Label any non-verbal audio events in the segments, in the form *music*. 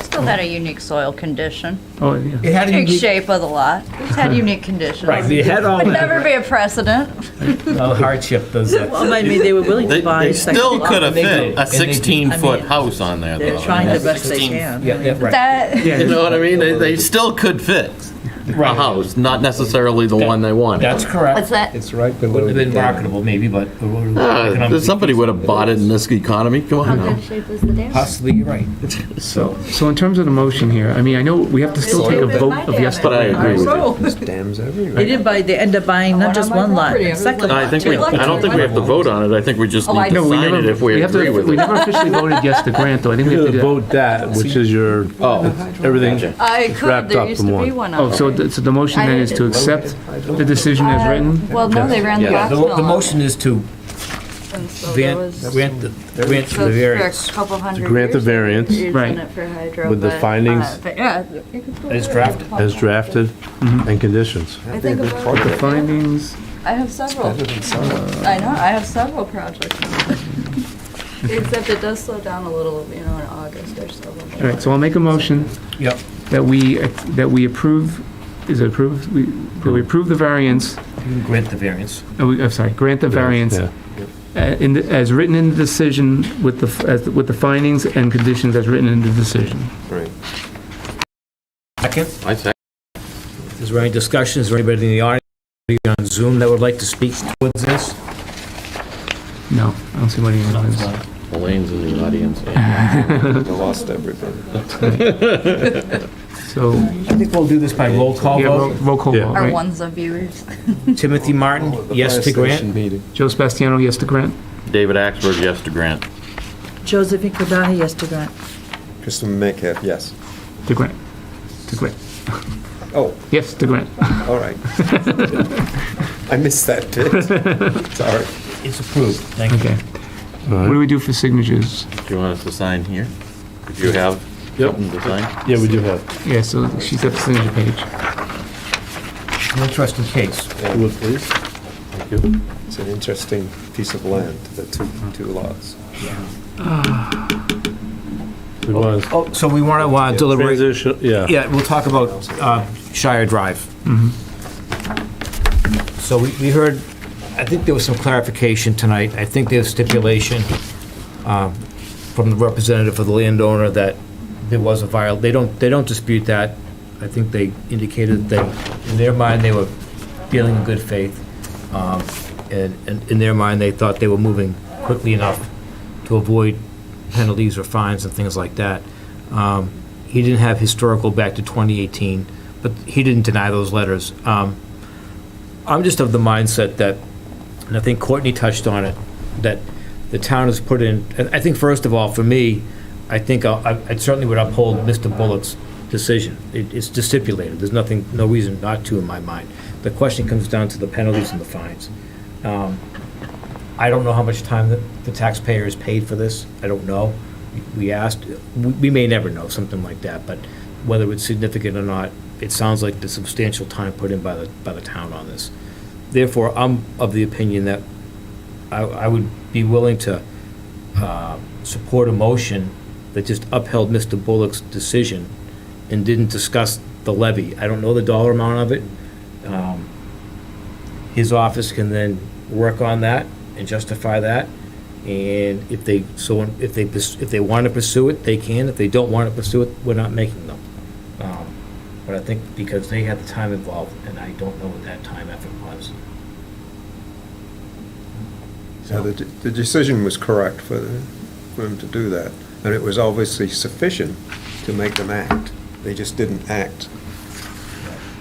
Still had a unique soil condition, Oh, yeah. It had a unique unique, shape of the lot. It's *laughs* had unique conditions. right, they had all Would that never be a precedent. uh, hardship, those, uh, Well, I mean, they were willing They, to buy they a second still lot. could have They do. fit a And they do. sixteen-foot I mean, house on there, though. They're trying the best they can. yeah, yeah, right, That, You know what I mean? They, they still could fit a Right. house, not necessarily the one they wanted. that's correct. what's that? It's right below. Wouldn't have been marketable, maybe, but. Uh, Somebody would have bought it in this economy, come on now. shape is the dam? Possibly, you're right. So, so in terms of the motion here, I mean, I know we have to still take a vote of yes. to But I waive. agree with you. So, There's dams everywhere. They did buy, they end up buying not just one lot, a second I lot, think we, too. I don't think we have to vote on it. I think we just Oh, I need to know, We sign it never- if we have to- agree with We it. never officially voted yes to grant, though. I think we have to You do that. vote that, which is your, Oh, everything. gotcha. I wrapped could, there up used in to be one. one Oh, on so the, so the motion then is to accept the decision Uh, as written? Well, no, they ran the Yeah, box The, mill the on motion is to it, and so there grant, was- grant the, grant so the it's for a variance. couple hundred grant the years they were variance. using Right. it for hydro, With the but, uh, findings. but Yeah. As drafted. as drafted and conditions. I think about The it. findings, I have several. I know, I have several projects. Except it does slow down a little, you know, in August or so. when all they- right, so I'll make a motion Yep, that we, that we approve, is it approved? We, that we approve the variance, you can grant the variance. oh, we- I'm sorry, grant the variance Yeah. uh, in, the- as written in the decision with the, f- as, with the findings and conditions as written in the decision. Second, I second. is there any discussion, is there anybody in the audience, anybody on Zoom that would like to speak towards this? No, I don't see what anyone is. Elaine's in the audience. Lost everything. So, I think we'll do this by roll call yeah, ro- vote. roll call vote, Yeah. Our right? ones of viewers. Timothy Martin, yes to grant? Joe Sebastiano, yes to grant? David Axberg, yes to grant. Josephine Kubana, yes to grant. Kristen Metcalf, yes. To grant. To grant. Oh, Yes, to grant. all *laughs* right. I missed that bit. *laughs* Sorry. It's approved, thank you. Okay. What do we do for signatures? Do you want us to sign here? If you have something to sign? Yeah, we do have. Yeah, so she's at the signature page. It's an interesting case. Would please? It's an interesting piece of land, the two, two lots. It was. Oh, so we want to uh, deliberate, Transition, yeah. yeah, we'll talk about uh, Shire Drive. So we we heard, I think there was some clarification tonight. I think there's stipulation um, from the representative of the landowner that there was a viol, they don't, they don't dispute that. I think they indicated that in their mind, they were dealing in good faith. Um, And and in their mind, they thought they were moving quickly enough to avoid penalties or fines and things like that. Um, He didn't have historical back to 2018, but he didn't deny those letters. Um, I'm just of the mindset that, and I think Courtney touched on it, that the town has put in, and I think first of all, for me, I think I I certainly would uphold Mr. Bullock's decision. It- It's just stipulated, there's nothing, no reason not to in my mind. The question comes down to the penalties and the fines. Um, I don't know how much time the- the taxpayer has paid for this, I don't know. We asked, we we may never know, something like that, but whether it's significant or not, it sounds like the substantial time put in by the, by the town on this. Therefore, I'm of the opinion that I, I would be willing to uh, support a motion that just upheld Mr. Bullock's decision and didn't discuss the levy. I don't know the dollar amount of it. Um, His office can then work on that and justify that. And if they, so if they, pers- if they want to pursue it, they can. If they don't want to pursue it, we're not making them. Um, But I think because they had the time involved, and I don't know what that time effort was. So the, de- the decision was correct for, the- for them to do that, and it was obviously sufficient to make them act. They just didn't act.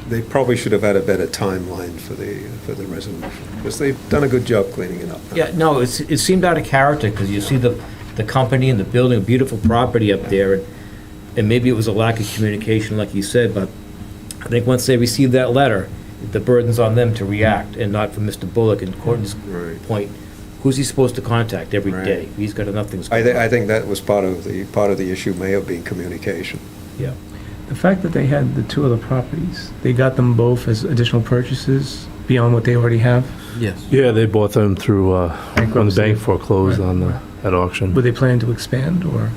They probably should have had a better timeline for the, for the resolution, because they've done a good job cleaning it up. Yeah, no, it's, it seemed out of character, because you see the, the company and the building, a beautiful property up there, and, and maybe it was a lack of communication, like you said, but I think once they receive that letter, the burden's on them to react, and not for Mr. Bullock and Courtney's Right. point. Who's he supposed to contact every Right. day? He's got enough things. I, going thi- on. I think that was part of the, part of the issue may have been communication. Yeah. The fact that they had the two other properties, they got them both as additional purchases beyond what they already have? Yes. Yeah, they bought them through, uh, when the Bankruptcy. bank foreclosed on the, at auction. Were they planning to expand or?